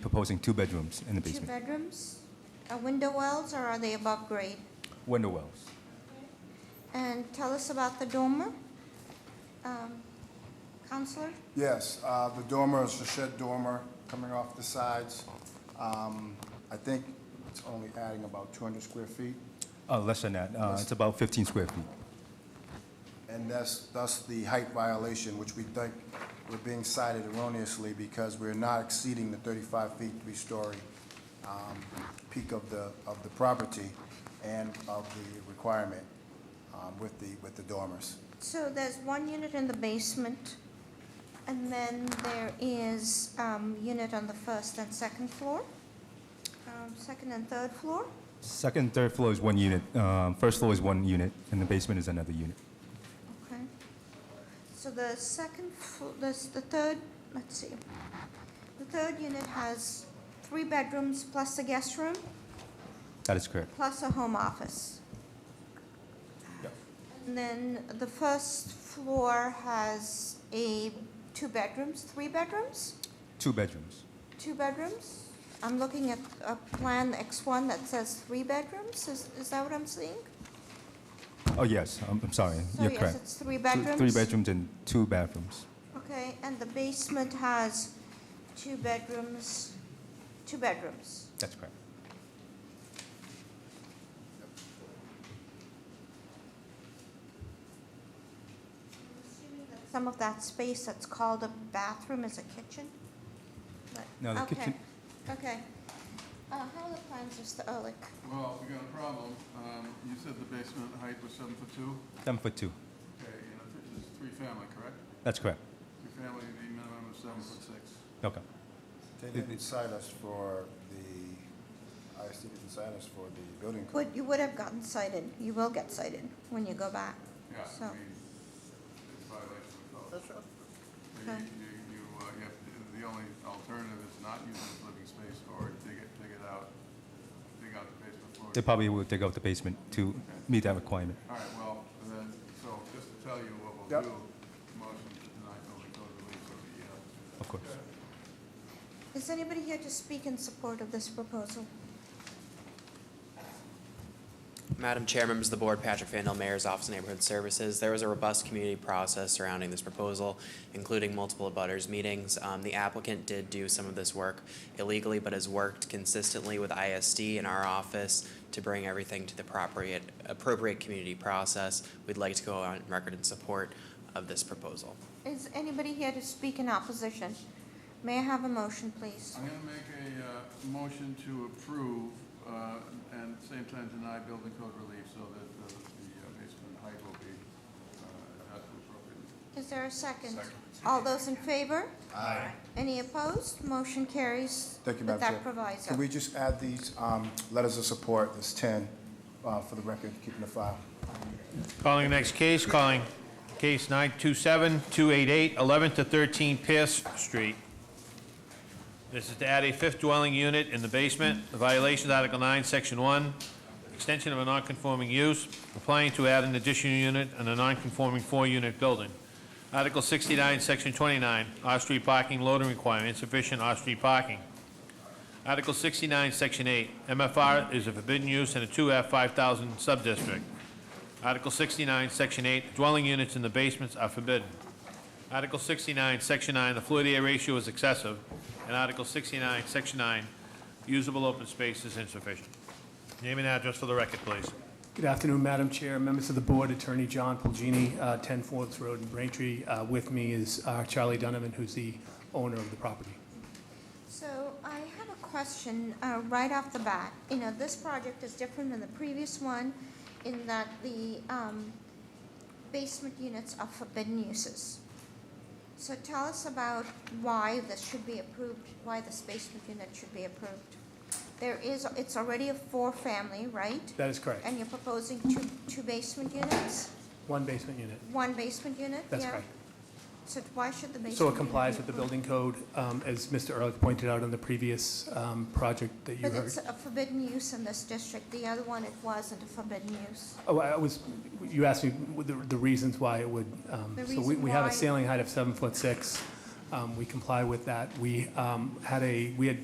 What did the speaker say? proposing two bedrooms in the Two basement, bedrooms? Are window wells or are they above grade? window wells. And tell us about the dormer. Um, Counselor? Yes, uh, the dormer is a shed dormer coming off the sides. Um, I think it's only adding about 200 square feet, Uh, Less than that, Uh, it's about 15 square feet. and thus, thus the height violation, which we think we're being cited erroneously because we're not exceeding the 35 feet, three-story um, peak of the, of the property and of the requirement um, with the, with the dormers. So there's one unit in the basement, and then there is um, unit on the first and second floor, um, second and third floor. Second, and third floor is one unit, Um, first floor is one unit, and the basement is another unit. Okay. So the second, fl- this, the third, let's see. The third unit has three bedrooms plus a guest room, That is correct. plus a home office. And then the first floor has a, two bedrooms, three bedrooms? Two bedrooms. Two bedrooms? I'm looking at a plan X1 that says three bedrooms, is, is that what I'm seeing? Oh, yes, I'm I'm sorry, So you're yes, correct. it's three Two- bedrooms? Three bedrooms and two bathrooms. Okay, and the basement has two bedrooms, two bedrooms. That's correct. Some of that space that's called a bathroom is a kitchen? But- No, the okay, kitchen- Okay. Uh, how are the plans, oh, Mr. Ehrlich? Well, we got a problem. Um, You said the basement height was seven foot two, Seven foot two. okay, and it's it's three-family, correct? That's correct. Three-family, the minimum is seven foot six. Okay. They didn't cite us for the, I see didn't cite us for the building code. Would, you would have gotten cited, you will get cited when you go back. Yeah, So- I mean, it's violation of code. That's right. Okay. You, you, uh, you have, to- the only alternative is not use it as living space or dig it, dig it out, dig out the basement floor. They probably will dig out the basement to meet that requirement. All right, well, then, so just to tell you what we'll Yep. do, motion to deny building code relief of the, uh, Of course. Is anybody here to speak in support of this proposal? Madam Chair, members of the board, Patrick Fandel, Mayor's Office of Neighborhood Services. There was a robust community process surrounding this proposal, including multiple abutters meetings. Um, The applicant did do some of this work illegally, but has worked consistently with ISD and our office to bring everything to the appropriate, appropriate community process. We'd like to go on record in support of this proposal. Is anybody here to speak in opposition? May I have a motion, please? I'm going to make a uh, motion to approve uh, and at the same time deny building code relief so that uh, the uh, basement height will be uh, adjusted appropriately. Is there a second? Second. All those in favor? Aye. Any opposed? Motion carries Thank you, with Madam Chair. that proviso. Can we just add these um, letters of support, there's 10, uh, for the record, keeping the file? Calling the next case, calling case 927-288, 11 to 13 Pierce Street. This is to add a fifth dwelling unit in the basement. The violation is Article 9, Section 1, extension of a non-conforming use, applying to add an additional unit in a non-conforming four-unit building. Article 69, Section 29, off-street parking loading requirement, insufficient off-street parking. Article 69, Section 8, MFR is a forbidden use in a 2F 5,000 subdistrict. Article 69, Section 8, dwelling units in the basements are forbidden. Article 69, Section 9, the floor-to-air ratio is excessive. And Article 69, Section 9, usable open space is insufficient. Name and address for the record, please. Good afternoon, Madam Chair, members of the board, Attorney John Pulgini, uh, 10 Forbes Road in Braintree. Uh, With me is uh, Charlie Donovan, who's the owner of the property. So I have a question uh, right off the bat. You know, this project is different than the previous one in that the um, basement units are forbidden uses. So tell us about why this should be approved, why this basement unit should be approved. There is, it's already a four-family, right? That is correct. And you're proposing two, two basement units, One basement unit. one basement unit? That's yeah? correct. So why should the basement? So it unit complies be with the approved? building code, um, as Mr. Ehrlich pointed out on the previous um, project that you But heard. it's a forbidden use in this district, the other one, it wasn't a forbidden use. Oh, I was, you asked me the the reasons why it would, um, The so we reason we have why- a ceiling height of seven foot six. Um, We comply with that. We um, had a, we had